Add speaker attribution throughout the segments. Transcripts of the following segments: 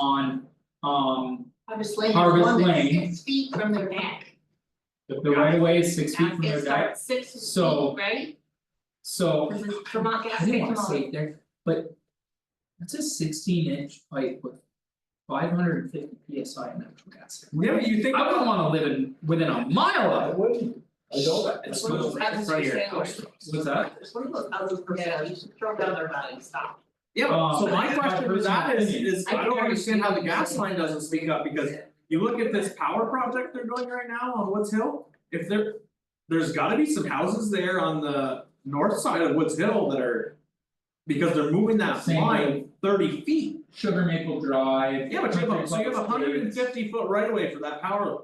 Speaker 1: on um
Speaker 2: Harvest Lane is
Speaker 1: Harvest
Speaker 2: one that's
Speaker 1: Lane.
Speaker 2: six feet from their back.
Speaker 1: the the right of way is six feet from their
Speaker 2: It's
Speaker 1: back,
Speaker 2: like Six
Speaker 1: So-
Speaker 2: feet, right?
Speaker 1: so.
Speaker 2: This is Vermont gas
Speaker 1: I didn't wanna
Speaker 2: station
Speaker 1: say
Speaker 2: law.
Speaker 1: it there, but. That's a sixteen inch pipe with five hundred and fifty PSI of natural gas.
Speaker 3: Yeah, but you think.
Speaker 1: I wouldn't wanna live in within a mile
Speaker 3: I
Speaker 1: of it,
Speaker 3: wouldn't. I don't.
Speaker 1: It's
Speaker 2: One of those
Speaker 1: right in
Speaker 2: houses
Speaker 1: front of
Speaker 2: for
Speaker 1: your
Speaker 2: sale.
Speaker 1: house. what's that?
Speaker 2: It's one of those houses for sale, you should throw down their body and stop.
Speaker 3: Yeah, but- so
Speaker 1: Um,
Speaker 3: my question to that is, is
Speaker 2: I
Speaker 3: I don't
Speaker 2: think I
Speaker 3: understand how the
Speaker 2: understand.
Speaker 3: gas line doesn't speak up, because you look at this power project they're doing right now on Woods Hill, if there. There's gotta be some houses there on the north side of Woods Hill that are. Because they're moving that
Speaker 1: Same.
Speaker 3: line thirty feet,
Speaker 1: Sugar Maple Drive.
Speaker 3: yeah, but you have, a- so you have a hundred and
Speaker 1: Country Club
Speaker 3: fifty foot right away for that power,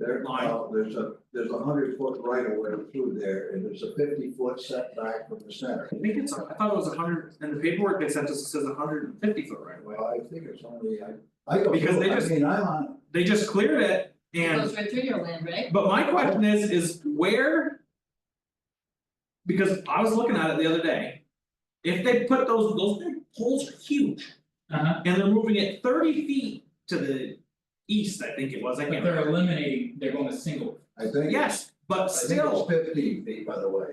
Speaker 4: There,
Speaker 3: Line.
Speaker 4: uh, there's a, there's a hundred foot right of way through there, and there's a fifty foot setback from the center.
Speaker 3: I think it's, I thought it was a hundred, and the paperwork they sent us says a hundred and fifty foot right away.
Speaker 4: Well, I think it's only, I, I go,
Speaker 3: Because they
Speaker 4: through, I
Speaker 3: just-
Speaker 4: mean, I'm on,
Speaker 3: They just cleared it
Speaker 2: It
Speaker 3: and
Speaker 2: goes right through your land, right?
Speaker 3: But my question is, is where? Because I was looking at it the other day. If they put those, those big poles are huge
Speaker 1: Uh-huh,
Speaker 3: and they're moving it thirty feet to the east, I think it was, I
Speaker 1: but
Speaker 3: can't
Speaker 1: they're
Speaker 3: remember.
Speaker 1: eliminating, they're going to single,
Speaker 4: I think.
Speaker 3: Yes, but
Speaker 4: I think
Speaker 3: still,
Speaker 4: it's fifteen feet, by the way.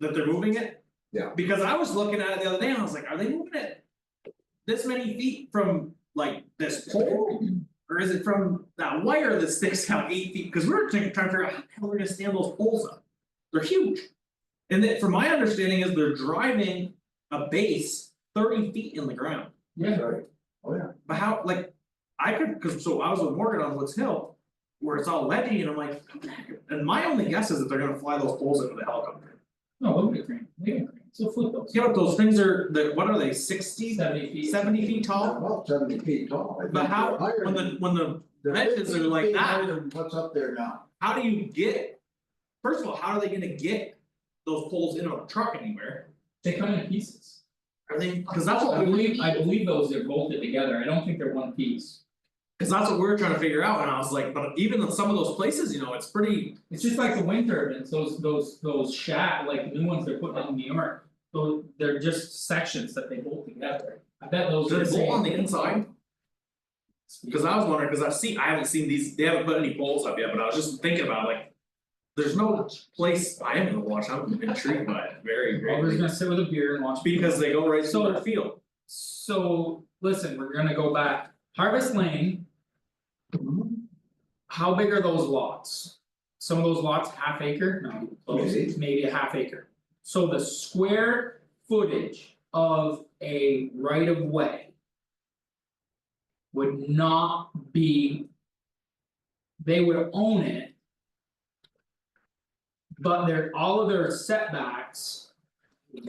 Speaker 3: that they're moving it?
Speaker 4: Yeah.
Speaker 3: Because I was looking at it the other day and I was like, are they moving it? This many feet from like this pole? Or is it from that wire that sticks out eight feet? Cause we we're trying trying to figure out how the hell we're gonna stand those poles up. They're huge. And then from my understanding is they're driving a base thirty feet in the ground.
Speaker 1: yeah,
Speaker 4: Right. Oh, yeah,
Speaker 3: But how, like, I could, cause so I was with Morgan on Woods Hill. Where it's all ledgy and I'm like, "How the heck?" and my only guess is that they're gonna fly those poles into the helicopter.
Speaker 1: no, look at green, look at green, so flip those.
Speaker 3: Yeah, but those things are, the, what are they, sixty,
Speaker 1: Seventy feet.
Speaker 3: seventy feet tall?
Speaker 4: about seventy feet tall, I think.
Speaker 3: Oh. But how,
Speaker 4: They're higher
Speaker 3: when
Speaker 4: than-
Speaker 3: the, when the,
Speaker 4: they're
Speaker 3: dimensions are
Speaker 4: 15
Speaker 3: like
Speaker 4: feet
Speaker 3: that.
Speaker 4: higher than What's up there now?
Speaker 3: how do you get? First of all, how are they gonna get those poles into a truck anywhere?
Speaker 1: They come in pieces.
Speaker 3: Are they, cause that's what
Speaker 1: I
Speaker 3: we,
Speaker 1: believe, I believe those are bolted together, I don't think they're one piece.
Speaker 3: cause that's what we were trying to figure out, and I was like, but even in some of those places, you know, it's pretty,
Speaker 1: It's just like the wind turbines, those those those shack, like new ones they're putting up in New York, those they're just sections that they bolt together. I bet
Speaker 3: do
Speaker 1: those are the
Speaker 3: they bolt on the
Speaker 1: same.
Speaker 3: inside? Cause I was wondering, cause I've seen, I haven't seen these, they haven't put any poles up yet, but I was just thinking about like. There's no place, I am gonna watch, I'm intrigued by it, very
Speaker 1: Well, we're just
Speaker 3: greatly,
Speaker 1: gonna sit with a beer and watch.
Speaker 3: because they go right
Speaker 1: So-
Speaker 3: to the field,
Speaker 1: So, listen, we're gonna go back, Harvest Lane. How big are those lots? Some of those lots half acre, no, close,
Speaker 4: Maybe.
Speaker 1: maybe a half acre. So the square footage of a right of way. Would not be. They would own it. But their, all of their setbacks,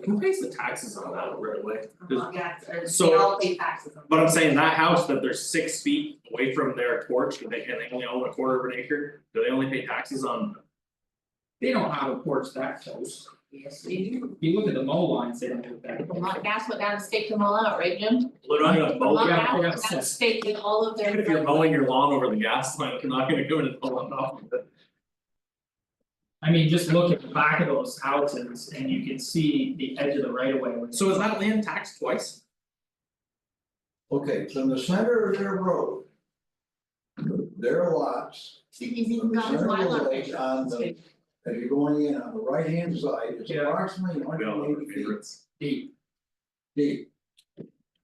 Speaker 3: who pays the taxes on that right away?
Speaker 2: Vermont gas, or they
Speaker 3: So-
Speaker 2: all pay taxes on
Speaker 3: But I'm saying that house that they're six feet away from their porch, and they and they only own a quarter of an acre, do they only pay taxes on?
Speaker 1: they don't have a porch that close.
Speaker 2: it. Yes, they do.
Speaker 1: If you look at the mow lines, they don't look that.
Speaker 2: Vermont gas went down and staked them all out, right, Jim?
Speaker 3: Literally a
Speaker 2: Vermont
Speaker 3: mow,
Speaker 1: Oh, yeah,
Speaker 2: gas
Speaker 1: yeah,
Speaker 2: went down and staked in all of their.
Speaker 3: if you're mowing your lawn over the gas line, you're not gonna go in and pull it off.
Speaker 1: I mean, just look at the back of those houses and you can see the edge of the right of way. where-
Speaker 3: So is that land taxed twice?
Speaker 4: Okay, from the center of their road. Their lots,
Speaker 2: See, he's even got his
Speaker 4: Sure,
Speaker 2: Mylar
Speaker 4: like,
Speaker 2: picture.
Speaker 4: on the- if you're going in on the right hand side, it's
Speaker 1: Yeah.
Speaker 4: approximately
Speaker 3: We
Speaker 4: hundred
Speaker 3: all have
Speaker 4: and
Speaker 3: our
Speaker 4: eighty feet.
Speaker 3: favorites.
Speaker 1: Deep,
Speaker 4: deep.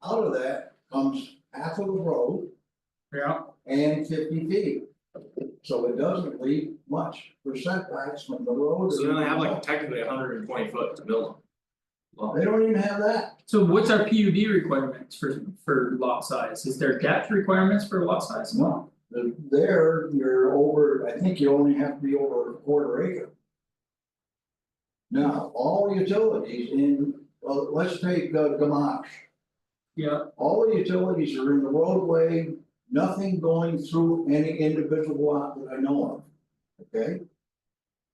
Speaker 4: Out of that comes half of the road
Speaker 1: yeah,
Speaker 4: and fifty feet. So it doesn't leave much for setbacks from the road.
Speaker 3: So then they have like technically hundred and twenty foot to build
Speaker 4: They don't even have that.
Speaker 1: so what's our PUD requirements for for lot size, is there depth requirements for lot size?
Speaker 4: No. The- There, you're over, I think you only have to be over a quarter acre. Now, all utilities in, well, let's take uh, Gamache.
Speaker 1: Yeah,
Speaker 4: All the utilities are in the roadway, nothing going through any individual lot that I know of, okay?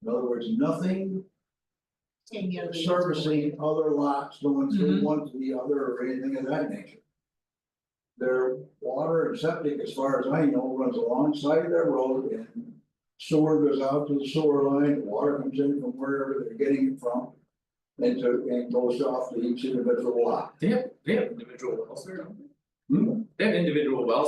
Speaker 4: In other words, nothing
Speaker 2: Ten years.
Speaker 4: servicing other lots going through
Speaker 1: Mhm.
Speaker 4: one to the other or anything of that nature. Their water and septic, as far as I know, runs alongside their road and sewer goes out to the sewer line, water comes in from wherever they're getting it from. And to, and goes off to each individual lot.
Speaker 3: They have, they have individual wells there, don't They have individual wells